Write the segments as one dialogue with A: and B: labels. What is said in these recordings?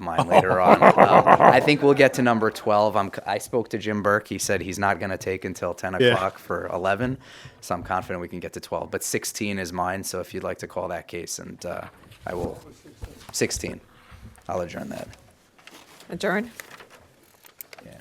A: mine later on. Um, I think we'll get to number 12. I'm, I spoke to Jim Burke. He said he's not going to take until 10
B: Yeah.
A: o'clock for 11. So I'm confident we can get to 12. But 16 is mine. So if you'd like to call that case, and uh, I will. 16. I'll adjourn that.
C: Adjourn?
A: Yeah.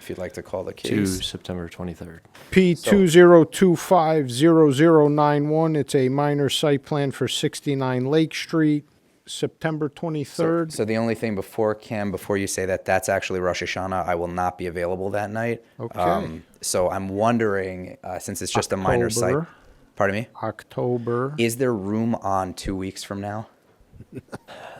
A: If you'd like to call the
D: to
A: case.
D: September 23rd.
B: P two zero two five zero zero nine one. It's a minor site plan for sixty-nine Lake Street, September twenty-third.
A: So the only thing before Cam, before you say that, that's actually Rosh Hashanah. I will not be available that night. Um,
B: Okay.
A: so I'm wondering, uh, since it's just a minor site.
B: October.
A: Pardon me.
B: October.
A: Is there room on two weeks from now?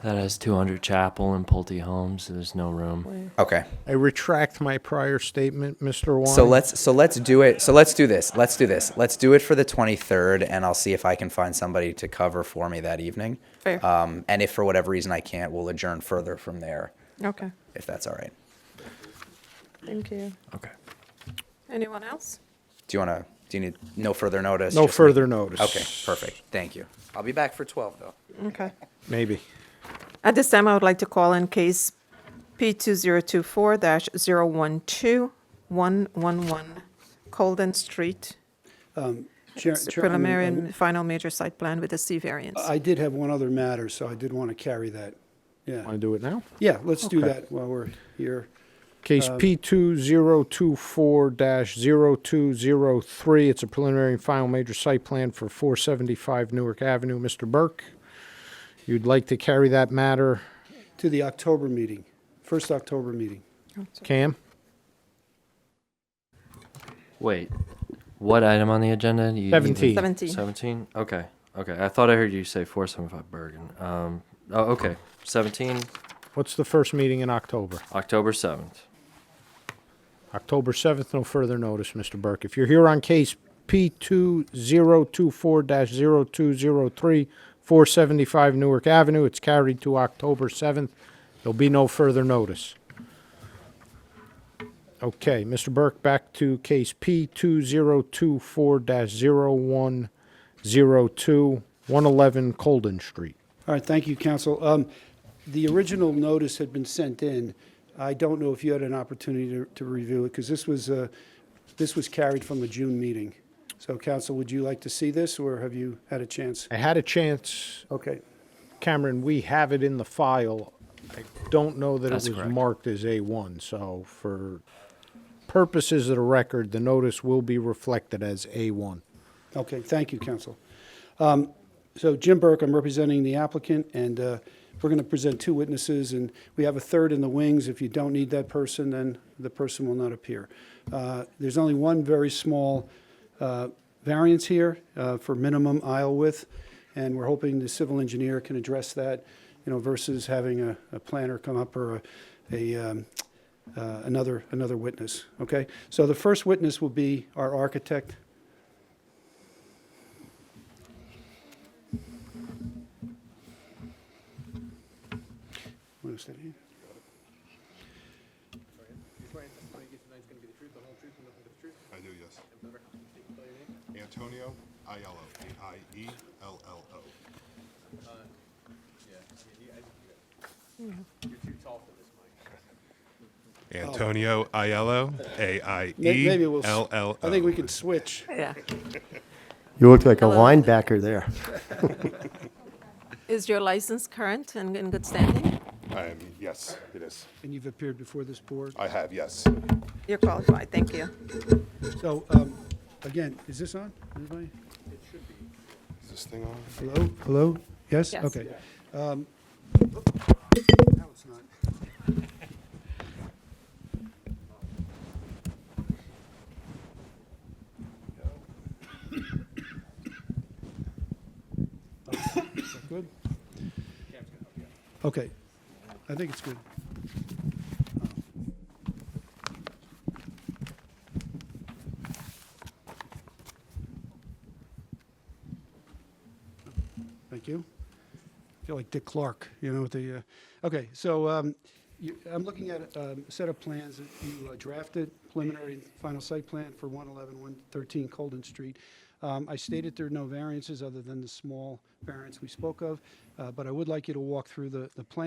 D: That has 200 Chapel and Pulte Homes. So there's no room.
A: Okay.
B: I retract my prior statement, Mr. Wine.
A: So let's so let's do it. So let's do this. Let's do this. Let's do it for the 23rd, and I'll see if I can find somebody to cover for me that evening.
C: Fair.
A: Um, and if for whatever reason I can't, we'll adjourn further from there,
C: Okay.
A: if that's all right.
C: Thank you.
D: Okay.
C: Anyone else?
A: Do you want to? Do you need no further notice?
B: No
A: Just me-
B: further notice.
A: Okay. Perfect. Thank you. I'll be back for 12 though.
C: Okay.
B: Maybe.
C: At this time, I would like to call in case P2024-012111, Colden Street,
E: Chair-
C: It's a
E: Chair- I mean,
C: preliminary
E: um,
C: and final major site plan with a C variance.
E: I did have one other matter, so I did want to carry that. Yeah,
B: Want to do it now?
E: yeah, let's do that while we're here.
B: Case P two zero two four dash zero two zero three. It's a preliminary and final major site plan for four seventy-five Newark Avenue. Mr. Burke, you'd like to carry that matter,
E: To the October meeting, first October meeting.
B: Cam?
D: Wait. What item on the agenda? You- you-
B: 17.
C: 17.
D: 17? Okay. Okay. I thought I heard you say 475 Bergen. Um, oh, okay. 17,
B: What's the first meeting in October?
D: October 7th.
B: October 7th, no further notice, Mr. Burke. If you're here on case P2024-0203, 475 Newark Avenue, it's carried to October 7th. There'll be no further notice. Okay, Mr. Burke, back to case P2024-0102, 111 Colden Street.
E: All right, thank you, counsel. Um, The original notice had been sent in. I don't know if you had an opportunity to- to review it, because this was, uh, this was carried from a June meeting. So, counsel, would you like to see this, or have you had a chance?
B: I had a chance,
E: Okay,
B: Cameron, we have it in the file. I don't know that it
D: That's
B: was
D: correct.
B: marked as A1, so for purposes of the record, the notice will be reflected as A1.
E: okay, thank you, counsel. Um, So Jim Burke, I'm representing the applicant, and uh, we're going to present two witnesses, and we have a third in the wings. If you don't need that person, then the person will not appear. Uh, There's only one very small uh, variance here uh, for minimum aisle width, and we're hoping the civil engineer can address that, you know, versus having a- a planner come up or a, a, um, uh, another, another witness, okay? So the first witness will be our architect, Wanna stand here?
F: I do, yes. Antonio Aiello, E A-I-E-L-L-O. Antonio Aiello, E
E: May- Maybe we'll. s-
F: A-I-E-L-L-O.
E: I think we can switch.
C: Yeah.
G: You look like a
C: Hello.
G: linebacker there.
C: Is your license current and in good standing?
F: Um, yes, it is.
E: And you've appeared before this board.
F: I have, yes.
C: You're qualified, thank you.
E: So, um, again, is this on? Anybody?
F: Is this thing on?
E: Hello? Hello? Yes?
C: Yes.
E: Okay. Um, Now it's not. Is that good? Okay. I think it's good. Thank you. I feel like Dick Clark, you know, with the, uh, okay, so um, you- I'm looking at um, a set of plans that you uh, drafted, preliminary and final site plan for 111, 113 Colden Street. Um, I stated there are no variances other than the small variance we spoke of, uh, but I would like you to walk through the the plan.